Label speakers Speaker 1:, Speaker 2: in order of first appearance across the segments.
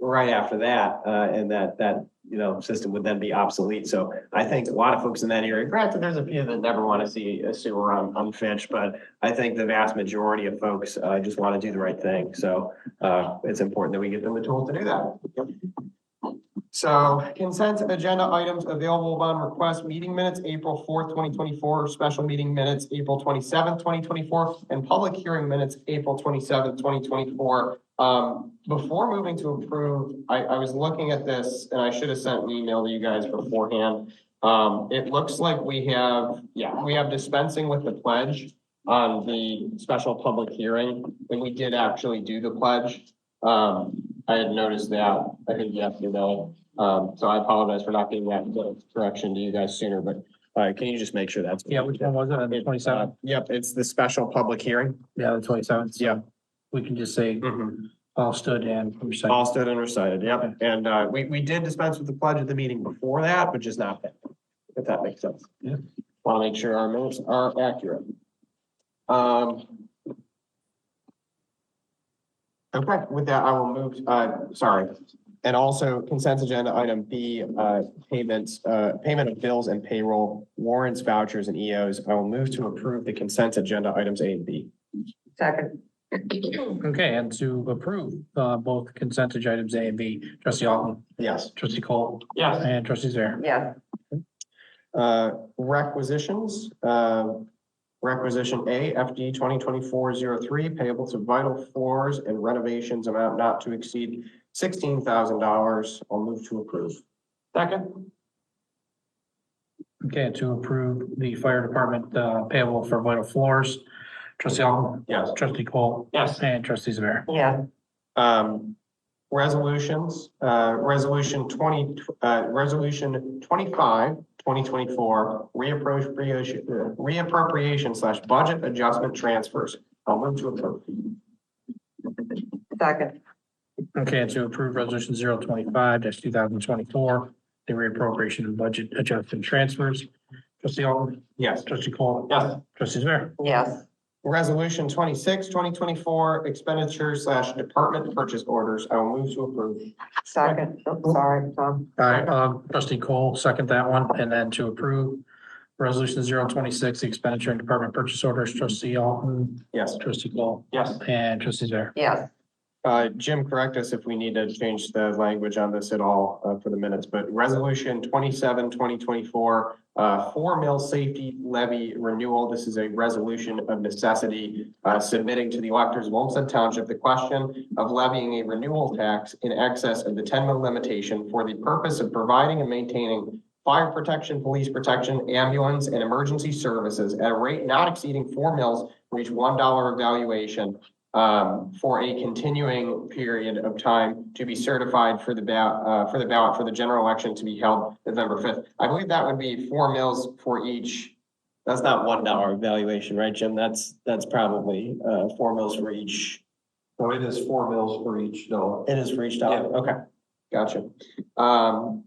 Speaker 1: right after that, uh, and that, that, you know, system would then be obsolete. So I think a lot of folks in that area, granted, there's a few that never want to see a sewer on, on Finch, but I think the vast majority of folks, uh, just want to do the right thing. So, uh, it's important that we give them the tools to do that. Yep. So consent agenda items available upon request, meeting minutes, April fourth, twenty twenty-four, special meeting minutes, April twenty-seventh, twenty twenty-four, and public hearing minutes, April twenty-seventh, twenty twenty-four. Um, before moving to approve, I, I was looking at this and I should have sent an email to you guys beforehand. Um, it looks like we have, yeah, we have dispensing with the pledge on the special public hearing, and we did actually do the pledge. Um, I had noticed that, I think you have to know, um, so I apologize for not getting that correction to you guys sooner, but. All right, can you just make sure that's?
Speaker 2: Yeah, which one was it? The
Speaker 1: Uh,
Speaker 2: twenty-seventh?
Speaker 1: Yep, it's the special public hearing.
Speaker 2: Yeah, the twenty-seventh.
Speaker 1: Yeah.
Speaker 2: We can just say
Speaker 1: Mhm.
Speaker 2: all stood and recited.
Speaker 1: All stood and recited, yep. And, uh, we, we did dispense with the pledge at the meeting before that, but just not that, if that makes sense.
Speaker 2: Yeah.
Speaker 1: Want to make sure our minutes are accurate. Um. Okay, with that, I will move, uh, sorry. And also consent agenda item B, uh, payments, uh, payment of bills and payroll, warrants, vouchers and EOs. I will move to approve the consent agenda items A and B.
Speaker 3: Second.
Speaker 2: Okay, and to approve, uh, both consent agenda items A and B, trustee Alton,
Speaker 1: Yes.
Speaker 2: trustee Cole,
Speaker 1: Yes.
Speaker 2: and trustee Zare.
Speaker 3: Yes,
Speaker 1: Uh, requisitions, uh, requisition A, FD twenty twenty-four zero three, payable to vital floors and renovations amount not to exceed sixteen thousand dollars. I'll move to approve. Second.
Speaker 2: Okay, and to approve the fire department, uh, payable for vital floors, trustee Alton,
Speaker 1: Yes.
Speaker 2: trustee Cole.
Speaker 1: Yes.
Speaker 2: And trustee Zare.
Speaker 3: yeah,
Speaker 1: Um, resolutions, uh, resolution twenty, uh, resolution 25, 2024, reappropriation, uh, reappropriation slash budget adjustment transfers. I'll move to approve.
Speaker 3: second,
Speaker 2: Okay, and to approve resolution zero twenty-five dash two thousand twenty-four, the reappropriation and budget adjustment transfers, trustee Alton,
Speaker 1: Yes.
Speaker 2: trustee Cole.
Speaker 1: Yes.
Speaker 2: Trustee Zare.
Speaker 3: yes,
Speaker 1: Resolution 26, 2024 expenditures slash department purchase orders. I will move to approve.
Speaker 3: second, Oh, sorry, Tom,
Speaker 2: All right, um, trustee Cole, second that one, and then to approve resolution zero twenty-six, the expenditure and department purchase orders, trustee Alton,
Speaker 1: Yes.
Speaker 2: trustee Cole,
Speaker 1: Yes.
Speaker 2: and trustee Zare.
Speaker 3: yes,
Speaker 1: Uh, Jim, correct us if we need to change the language on this at all, uh, for the minutes, but resolution 27, 2024, uh, four mill safety levy renewal. This is a resolution of necessity, uh, submitting to the electors of Olmsted Township the question of levying a renewal tax in excess of the ten mil limitation for the purpose of providing and maintaining fire protection, police protection, ambulance, and emergency services at a rate not exceeding four mils for each one dollar evaluation um, for a continuing period of time to be certified for the ballot, uh, for the ballot for the general election to be held November fifth. I believe that would be four mills for each. That's not one dollar valuation, right, Jim? That's, that's probably, uh, four mills for each
Speaker 4: So it is four mills for each dollar.
Speaker 1: it is for each dollar, okay, gotcha. Um,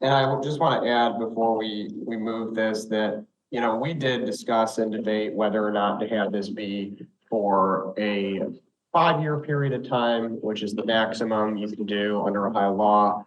Speaker 1: and I would just want to add before we, we move this, that, you know, we did discuss and debate whether or not to have this be for a five-year period of time, which is the maximum you can do under Ohio law,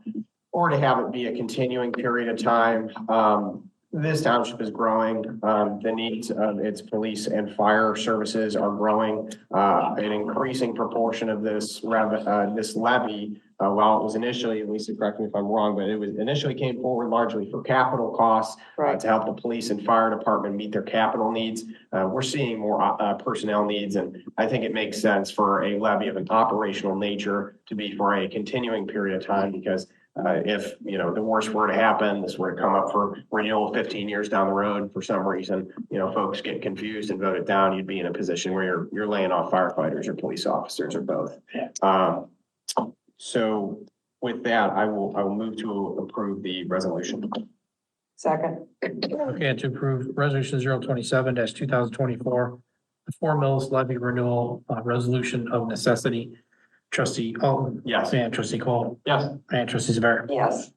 Speaker 1: or to have it be a continuing period of time. Um, this township is growing, um, the needs of its police and fire services are growing uh, an increasing proportion of this rev, uh, this levy, uh, while it was initially, at least correct me if I'm wrong, but it was initially came forward largely for capital costs uh,
Speaker 3: right,
Speaker 1: to help the police and fire department meet their capital needs. Uh, we're seeing more, uh, personnel needs, and I think it makes sense for a levy of an operational nature to be for a continuing period of time, because uh, if, you know, the worst were to happen, this were to come up for renewal fifteen years down the road, for some reason, you know, folks get confused and vote it down, you'd be in a position where you're, you're laying off firefighters or police officers or both.
Speaker 2: Yeah.
Speaker 1: Um, so with that, I will, I will move to approve the resolution.
Speaker 3: second,
Speaker 2: Okay, and to approve resolution zero twenty-seven dash two thousand twenty-four, the four mills levy renewal, uh, resolution of necessity, trustee Alton,
Speaker 1: Yes.
Speaker 2: and trustee Cole,
Speaker 1: Yes.
Speaker 2: and trustee Zare.
Speaker 3: yes,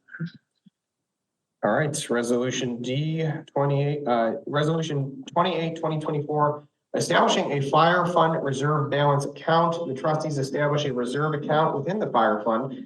Speaker 1: All right, resolution D twenty-eight, uh, resolution 28 2024, Establishing a fire fund reserve balance account. The trustees establish a reserve account within the fire fund